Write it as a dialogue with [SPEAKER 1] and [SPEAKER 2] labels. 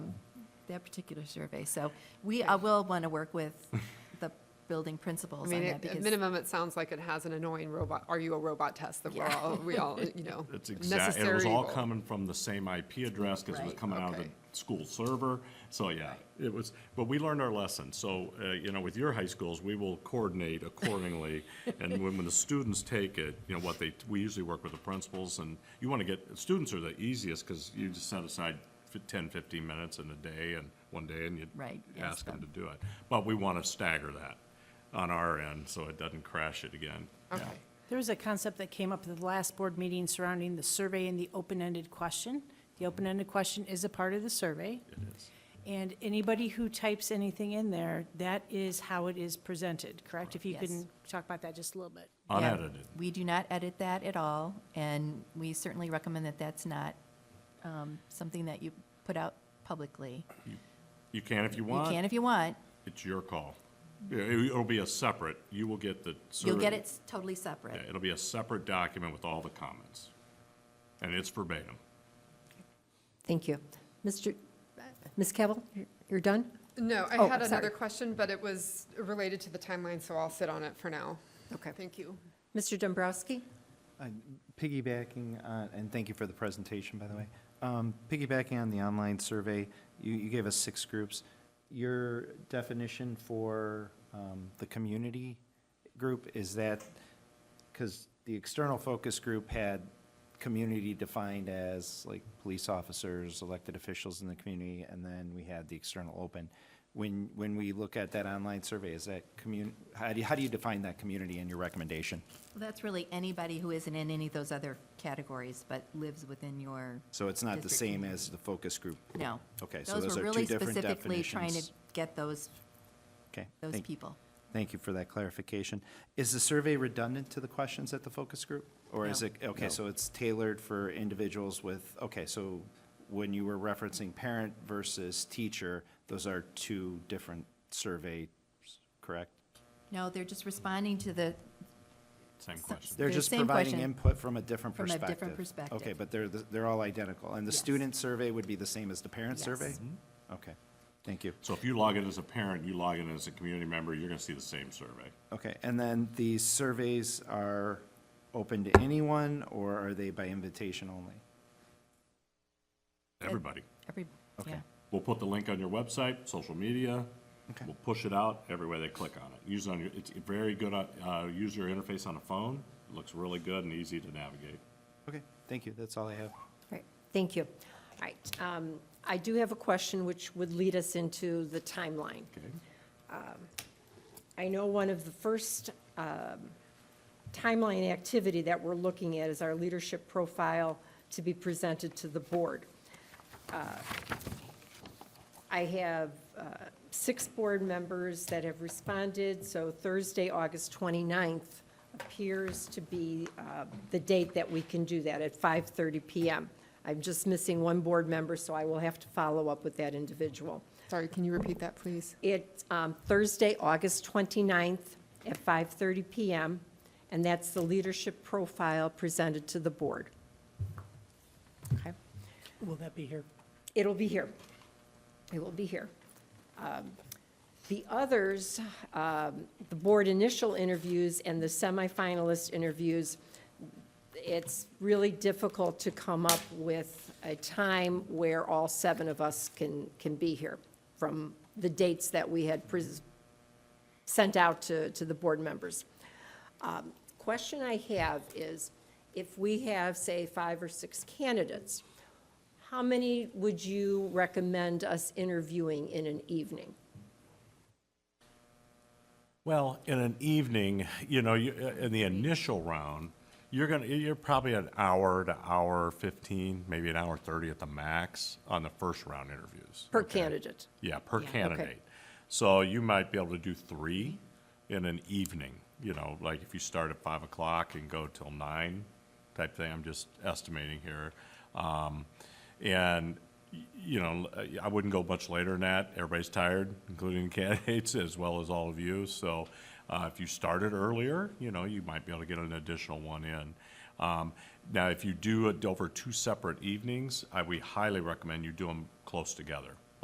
[SPEAKER 1] that particular survey. So we, I will want to work with the building
[SPEAKER 2] I
[SPEAKER 1] principals on
[SPEAKER 2] mean,
[SPEAKER 1] that
[SPEAKER 2] at at
[SPEAKER 1] because,
[SPEAKER 2] minimum, it sounds like it has an annoying robot, are you a robot test that we're
[SPEAKER 1] Yeah.
[SPEAKER 2] all, we all, you know,
[SPEAKER 3] It's exactly,
[SPEAKER 2] necessary.
[SPEAKER 3] it was all
[SPEAKER 2] evil.
[SPEAKER 3] coming from the same IP address because it was
[SPEAKER 1] Right,
[SPEAKER 3] coming out of the
[SPEAKER 2] okay.
[SPEAKER 3] school server. So, yeah, it was, but we learned our lesson. So, uh, you know, with your high schools, we will coordinate accordingly. And when, when the students take it, you know, what they, we usually work with the principals and you want to get, students are the easiest because you just set aside fif- 10, 15 minutes in a day and one day and you
[SPEAKER 1] Right, ask
[SPEAKER 3] ask them to
[SPEAKER 1] them.
[SPEAKER 3] do it. But we want to stagger that on our end so it doesn't crash it again.
[SPEAKER 2] Okay.
[SPEAKER 4] There was a concept that came up at the last board meeting surrounding the survey and the open-ended question. The open-ended question is a part of the survey.
[SPEAKER 3] It is.
[SPEAKER 4] And anybody who types anything in there, that is how it is presented, correct? If you
[SPEAKER 1] Yes.
[SPEAKER 4] can talk about that just a little bit.
[SPEAKER 1] Yeah,
[SPEAKER 3] Unedited.
[SPEAKER 1] we do not edit that at all. And we certainly recommend that that's not um, something that you put out publicly.
[SPEAKER 3] You can if you
[SPEAKER 1] You
[SPEAKER 3] want.
[SPEAKER 1] can if you want.
[SPEAKER 3] It's your call. Yeah, it- It'll be a separate, you will get the.
[SPEAKER 1] You'll get
[SPEAKER 3] survey.
[SPEAKER 1] it s- totally
[SPEAKER 3] Yeah,
[SPEAKER 1] separate.
[SPEAKER 3] It'll be a separate document with all the comments. And it's verbatim.
[SPEAKER 5] Thank you. Mr., Ms. Cavill, you're- you're done?
[SPEAKER 2] No, I
[SPEAKER 5] Oh,
[SPEAKER 2] had
[SPEAKER 5] sorry.
[SPEAKER 2] another question, but it was related to the timeline, so I'll sit on it for now.
[SPEAKER 5] Okay.
[SPEAKER 2] Thank you.
[SPEAKER 5] Mr. Dombrowski?
[SPEAKER 6] I'm Piggybacking, on- and thank you for the presentation, by the way. Um, Piggybacking on the online survey, you, you gave us six groups. Your definition for um, the community group, is that, because the external focus group had community defined as like police officers, elected officials in the community, and then we had the external open. When, when we look at that online survey, is that commun, how do you, how do you define that community in your recommendation?
[SPEAKER 1] That's really anybody who isn't in any of those other categories but lives within your,
[SPEAKER 6] So it's not the
[SPEAKER 1] District.
[SPEAKER 6] same as the focus group?
[SPEAKER 1] no.
[SPEAKER 6] Okay, so those
[SPEAKER 1] were
[SPEAKER 6] are
[SPEAKER 1] really
[SPEAKER 6] two different
[SPEAKER 1] Specifically trying to
[SPEAKER 6] definitions.
[SPEAKER 1] get those,
[SPEAKER 6] Okay,
[SPEAKER 1] those
[SPEAKER 6] thank-
[SPEAKER 1] people.
[SPEAKER 6] Thank you for that clarification. Is the survey redundant to the questions at the focus group? Or is
[SPEAKER 1] No.
[SPEAKER 6] it, okay, so it's tailored for individuals with, okay, so when you were referencing parent versus teacher, those are two different surveys, correct?
[SPEAKER 1] No, they're just responding to the,
[SPEAKER 3] Same
[SPEAKER 1] So-
[SPEAKER 3] question.
[SPEAKER 6] They're
[SPEAKER 1] The
[SPEAKER 6] just
[SPEAKER 1] same
[SPEAKER 6] providing
[SPEAKER 1] question.
[SPEAKER 6] input from a different
[SPEAKER 1] From a
[SPEAKER 6] perspective.
[SPEAKER 1] different perspective.
[SPEAKER 6] Okay, but they're, the- they're all identical. And the
[SPEAKER 1] Yes.
[SPEAKER 6] student survey would be the same as the parent
[SPEAKER 1] Yes.
[SPEAKER 6] survey? Okay, thank you.
[SPEAKER 3] So if you log in as a parent, you log in as a community member, you're going to see the same survey.
[SPEAKER 6] Okay, and then the surveys are open to anyone, or are they by invitation only?
[SPEAKER 3] Everybody.
[SPEAKER 1] every, yeah.
[SPEAKER 3] We'll put the link on your website, social media.
[SPEAKER 6] Okay.
[SPEAKER 3] We'll push it out every way they click on it. Use it on your, it's very good, uh, uh, user interface on a phone. It Looks really good and easy to navigate.
[SPEAKER 6] Okay, thank you, that's all I have.
[SPEAKER 5] Right, thank you. All right, um, I do have a question which would lead us into the timeline. Um,
[SPEAKER 3] Okay?
[SPEAKER 5] I know one of the first um, timeline activity that we're looking at is our leadership profile to be presented to the board. Uh, I have uh, six board members that have responded, so Thursday, August 29th appears to be uh, the date that we can do that, at 5:30 PM. I'm just missing one board member, so I will have to follow up with that individual.
[SPEAKER 2] Sorry, can you repeat that, please?
[SPEAKER 5] It's um, Thursday, August 29th at 5:30 PM, and that's the leadership profile presented to the board. Okay?
[SPEAKER 4] Will that be here?
[SPEAKER 5] It'll be here. It will be here. Um, The others, um, the board initial interviews and the semifinalist interviews, it's really difficult to come up with a time where all seven of us can, can be here from the dates that we had pres- sent out to, to the board members. Um, Question I have is, if we have, say, five or six candidates, how many would you recommend us interviewing in an evening?
[SPEAKER 3] Well, in an evening, you know, you, uh, in the initial round, you're gonna, you're probably an hour to hour fifteen, maybe an hour thirty at the max on the first round interviews.
[SPEAKER 5] Per
[SPEAKER 3] okay?
[SPEAKER 5] candidate.
[SPEAKER 3] Yeah, per candidate. So you might be able to do three in an evening, you know, like if you start at five o'clock and go till nine type thing, I'm just estimating here. Um, and, y- you know, I wouldn't go much later than that. Everybody's tired, including the candidates as well as all of you. So, uh, if you started earlier, you know, you might be able to get an additional one in. Um, now, if you do it over two separate evenings, I, we highly recommend you do them close together